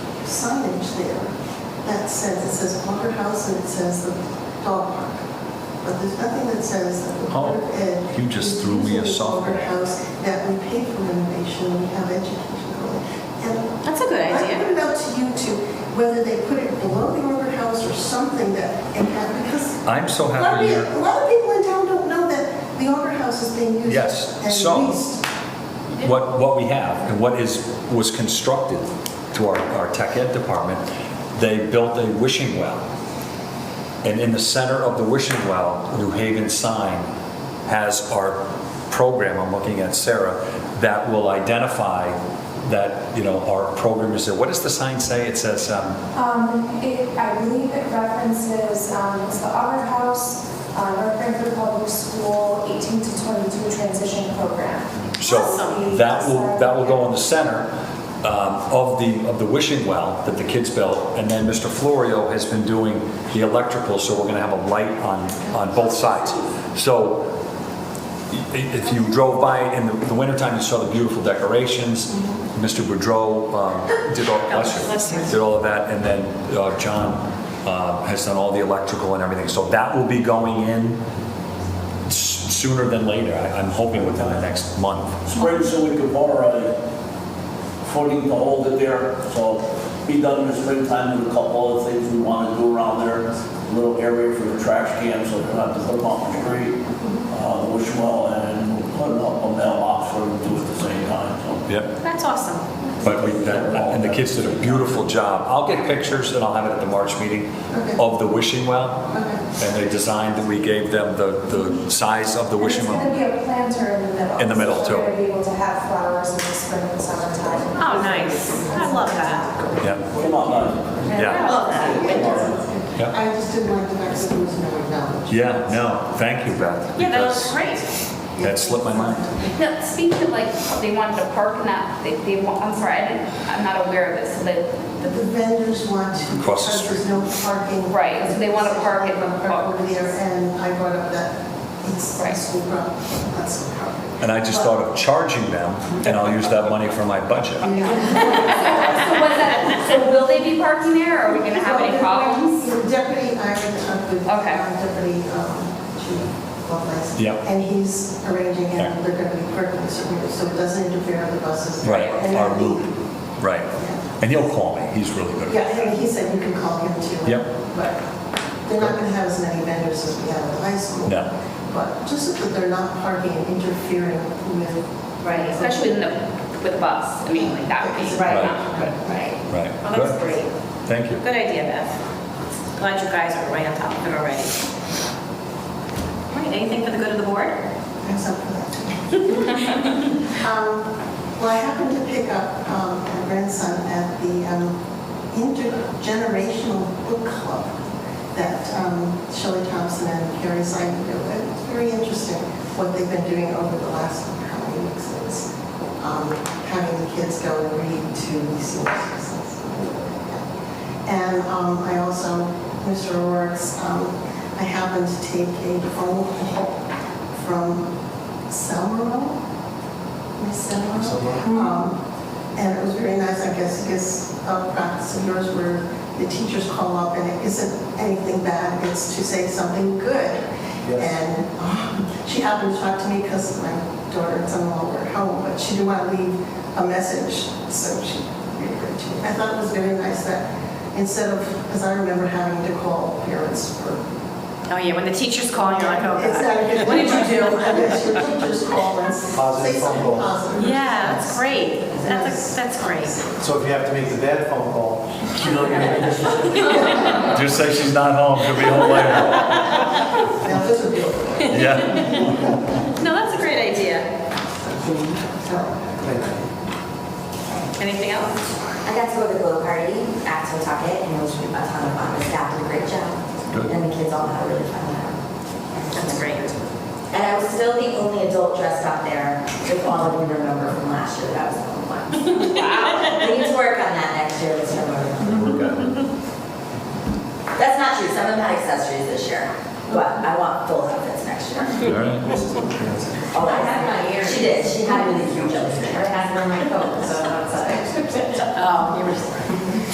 two that says, it says Quaker House and it says the dog park. But there's nothing that says that the Board of Ed. Oh, you just threw me a is using the Quaker softball. House That we pay for renovation, we have education going. And That's a good I idea. put it out to you to, whether they put it below the Quaker House or something that, and have, because I'm a so lot happy of peo- you're, a lot of people in town don't know that the Auburn House is being used. Yes, and so- leased. what, what we have and what is, was constructed to our, our tech ed department, they built a wishing well. And in the center of the wishing well, New Haven sign has our program, I'm looking at Sarah, that will identify that, you know, our program is there. What does the sign say? It says, um, Um, it, I believe it references, um, it's the Auburn House, uh, North Branford Public School, 18 to 22 transition program. so Awesome. that will, that will go in the center um, of the, of the wishing well that the kids built. And then Mr. Florio has been doing the electrical, so we're gonna have a light on, on both sides. So i- if you drove by in the- the wintertime, you saw the beautiful decorations. Mr. Boudreau um, did all, bless you, Bless you. did all of that, and then uh, John uh, has done all the electrical and everything. So that will be going in s- sooner than later. I- I'm hoping within the next month. Spring, so we could borrow a footing to hold it there. So be done in the springtime with a couple other things we want to do around there. A Little area for the trash cans, so they're not to put them on the street. Uh, wish well, and we'll put up a mailbox for them to do at the same time, Yep. That's awesome. But we, that- and the kids did a beautiful job. I'll get pictures and I'll have it at the March meeting Okay. of the wishing well. Okay. And they designed, that we gave them the, the size of the wishing It's well. gonna be a planter in the middle. In the middle, so too. We're gonna be able to have flowers in the spring and summertime. Oh, nice. I love that. Yeah, so. Come on, guys. I yeah. love that. Yeah. I just didn't like the fact that it was never acknowledged. Yeah, no, thank you, Beth. Yeah, that because was great. That slipped my mind. Now, speaking of like, they wanted to park and that, they, they, want- I'm sorry, I didn't, I'm not aware of this, so they, The vendors want to. Across the because There's no parking. Right, so they want to park it. Park over there, and I brought up that it's a Right. school property, not school property. And I just thought of charging them and I'll use that money for my budget. so what's that, so will they be parking there, or are we gonna have any problems? Deputy, I went up with Okay. um, Deputy um, Chief Lovelace. Yeah. And he's arranging it, Yeah. they're going to be parking somewhere, so it doesn't interfere with the buses. Right, And our I think- route, right. And he'll call me, he's really good. Yeah, and he said you can call him too. Yep. But they're not going to have as many vendors as we have at the high school. No. But just so that they're not parking and interfering with. Right, especially in the, with the bus, I mean, like, that would be. Right. Right. Right. Well, that's Good. great. Thank you. Good idea, Beth. Glad you guys are right on top of it already. All right, anything for the good of the board? Thanks up for that. Um, Well, I happened to pick up um, my grandson at the um, intergenerational book club that um, Shelley Thompson and Carrie Simon do. And It's very interesting what they've been doing over the last how many weeks it's um, having the kids go and read to these sources. And um, I also, Mr. O'Rourke's, um, I happened to take a phone call from Selmerville, Miss Selmerville. Um, And it was very nice, I guess, because of practice of yours where the teachers call up and it isn't anything bad, it's to say something good. And um, she happened to talk to me because my daughter and son-in-law were at home, but she didn't want to leave a message, so she referred to me. I thought it was very nice that instead of, because I remember having to call parents for Oh, yeah, when the teacher's calling, you're like, oh, it's not a God. good- What did you do? I guess your teachers call and say Positive phone something call. positive. Yeah, that's great. That's, a- that's great. So if you have to make the bad phone call, you know, you make- Just say she's not home, she'll be home later. Now, this would be okay. Yeah. No, that's a great idea. So, Anything else? I got to go to the glow party at Totucket, and it was a ton of fun. Um, The staff did a great job. Good. And the kids all had a really fun time. That's great. And I was still the only adult dressed up there with all of you remember from last year. That was so fun. Wow. We need to work on that next year with some of them. That's not true. Some of them had accessories this year, but I want full outfits next year. All right. Oh, I had my ear. She did. She had really huge outfits. I had it on my phone, so Oh,